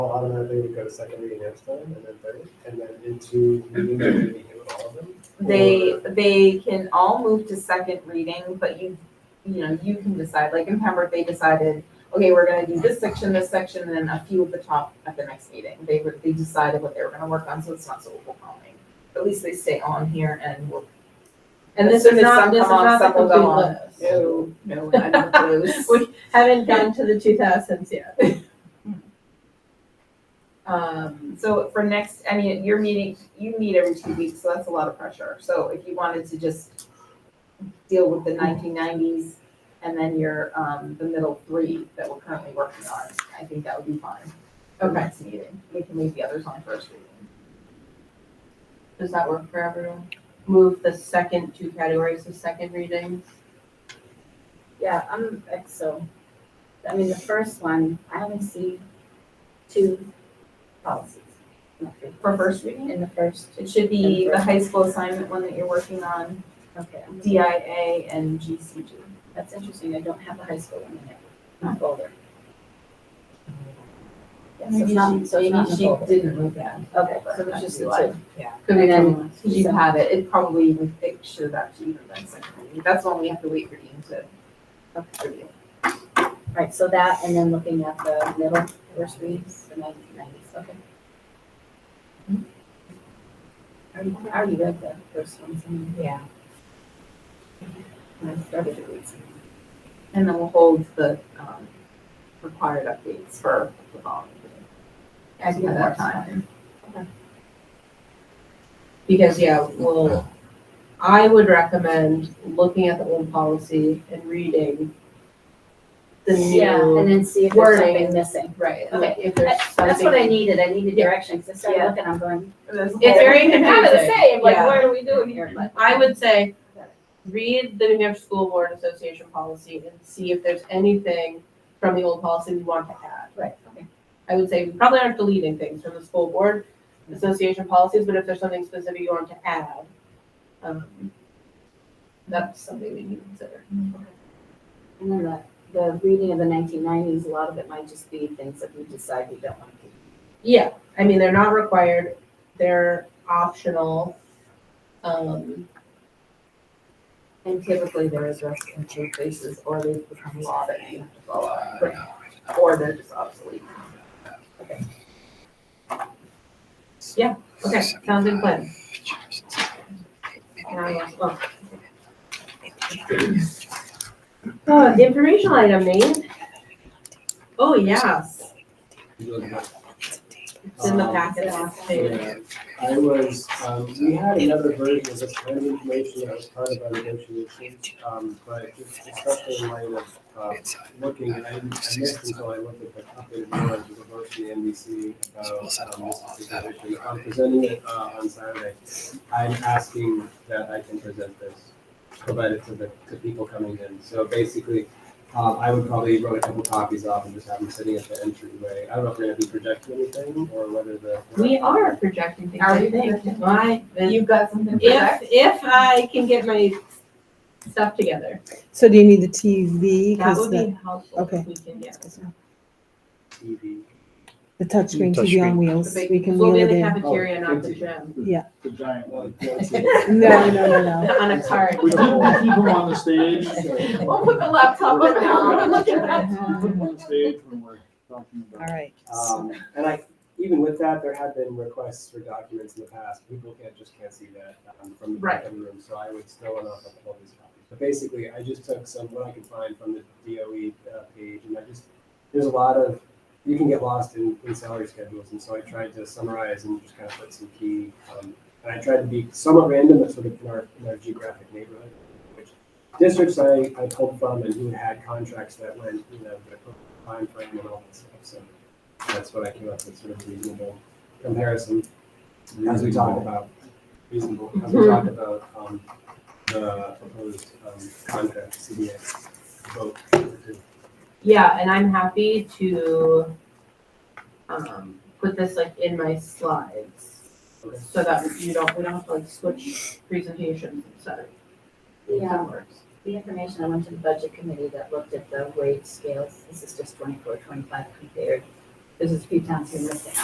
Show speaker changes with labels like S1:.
S1: automatically would go to second reading next time, and then third, and then into meeting, do we need to do all of them?
S2: They,
S1: Or-
S2: they can all move to second reading, but you, you know, you can decide, like in Pembroke, they decided, okay, we're gonna do this section, this section, and then a few at the top at the next meeting. They were, they decided what they were gonna work on, so it's not so overwhelming. At least they stay on here and we'll. And this
S3: is
S2: if
S3: not-
S2: some
S3: this
S2: come
S3: is
S2: off,
S3: not the
S2: some will go
S3: complete
S2: on.
S3: list.
S2: No, no, I don't close.
S3: We haven't gotten to the two thousands yet.
S2: Um, so for next, I mean, your meeting, you meet every two weeks, so that's a lot of pressure. So if you wanted to just deal with the nineteen nineties and then your, um, the middle three that we're currently working on, I think that would be fine. for
S3: Okay.
S2: Next meeting, we can leave the others on first reading.
S3: Does that work for everyone? Move the second two categories to second readings.
S4: Yeah, I'm, so, I mean, the first one, I only see two policies. not three,
S2: For first reading,
S4: In the first,
S2: it should be the high school assignment one that you're working on,
S4: okay,
S2: DIA and GCG.
S4: that's interesting, I don't have the high school one in it, not folder. Yes, it's not, so it's not in the
S2: Maybe she
S4: folder.
S2: didn't move that.
S4: Okay, so it's just the two.
S3: Could be
S2: And
S3: from
S2: Because you have it, it probably even, it should have actually even been second reading. That's one we have to wait for Dean to review.
S4: Right, so that, and then looking at the middle first reads, the nineteen nineties, okay. I already, I already read the first ones, and
S2: Yeah.
S4: I started to read. some.
S2: And then we'll hold the, um, required updates for the following meeting.
S3: I think
S2: At
S3: that's
S2: that
S3: fine.
S2: time.
S3: Because, yeah, well, I would recommend looking at the old policy and reading the
S4: Yeah, and
S3: new.
S4: then see if there's
S3: wording.
S4: something missing.
S3: Right, and
S4: Okay.
S3: if there's something.
S4: That's what I needed, I needed direction, because I started
S3: Yeah.
S4: looking, I'm going,
S2: It's
S4: it's very
S3: confusing.
S4: kind of the same, like,
S3: Yeah.
S4: what are we doing here? But
S3: I would say, read the New Hampshire School Board Association policy and see if there's anything from the old policy we want to add.
S4: Right, okay.
S3: I would say we probably aren't deleting things from the school board association policies, but if there's something specific you want to add, um, that's something we need to consider.
S4: And then the, the reading of the nineteen nineties, a lot of it might just be things that we decide we don't want to keep.
S3: Yeah, I mean, they're not required, they're optional. Um,
S4: And typically there is rest and two faces, or they've become law that you have to follow.
S2: Or they're just obsolete.
S3: okay, sounds like a plan. And I lost- well. Uh, informational item, Nate. Oh, yes, it's in the
S1: Um,
S3: packet last page.
S1: Yeah, I was, um, we had another version of this kind of information that was part of our negotiations, um, but just especially in light of, uh, looking, and I didn't- I missed until I looked at the updated version of the vote from the NBC about, um, this particular issue. I'm presenting it, uh, on Saturday. I'm asking that I can present this, provide it to the, to people coming in. So basically, um, I would probably run a couple copies off and just have them sitting at the entryway. I don't know if we're gonna be projecting anything or whether the.
S3: We are projecting things.
S2: Are we?
S3: My, if,
S2: You've got something for that?
S3: if I can get my stuff together,
S5: So do you need the TV?
S3: that
S5: 'Cause
S3: would
S5: the,
S3: be helpful
S5: okay.
S3: if we can get.
S1: TV.
S5: the touchscreen
S6: Touch
S5: TV
S6: screen.
S5: on wheels. We can wheel
S3: We'll be in
S5: it
S3: the
S5: in.
S3: cafeteria, not the
S1: thank you.
S3: gym,
S7: The giant one. We
S5: No, no, no, no.
S3: on a cart.
S7: keep, Oh, we keep him on the stage. We
S2: We'll put the laptop around. Look at that.
S7: put him on the stage when we're talking
S5: All
S7: about.
S5: right.
S1: Um, and I, even with that, there have been requests for documents in the past. People can't, just can't see that um, from the
S2: Right.
S1: back of the room, so I would still enough of all these copies. But basically, I just took some, what I could find from the DOE uh, page, and I just, there's a lot of, you can get lost in, in salary schedules, and so I tried to summarize and just kind of put some key, um, and I tried to be somewhat random, but sort of in our, in our geographic neighborhood, which districts I, I pulled from and who had contracts that went, you know, the time frame and all that stuff, so that's what I came up with, sort of reasonable comparison. As we talk about, reasonable, as we talk about, um, the proposed, um, contract, CBA vote.
S3: Yeah, and I'm happy to, um, put this like in my slides,
S1: Okay.
S3: so that you don't, we don't have to like switch presentations and stuff.
S4: Yeah,
S3: That works.
S4: the information I went to the budget committee that looked at the wage scales, this is just 24, 25 compared there's a few times we missed it.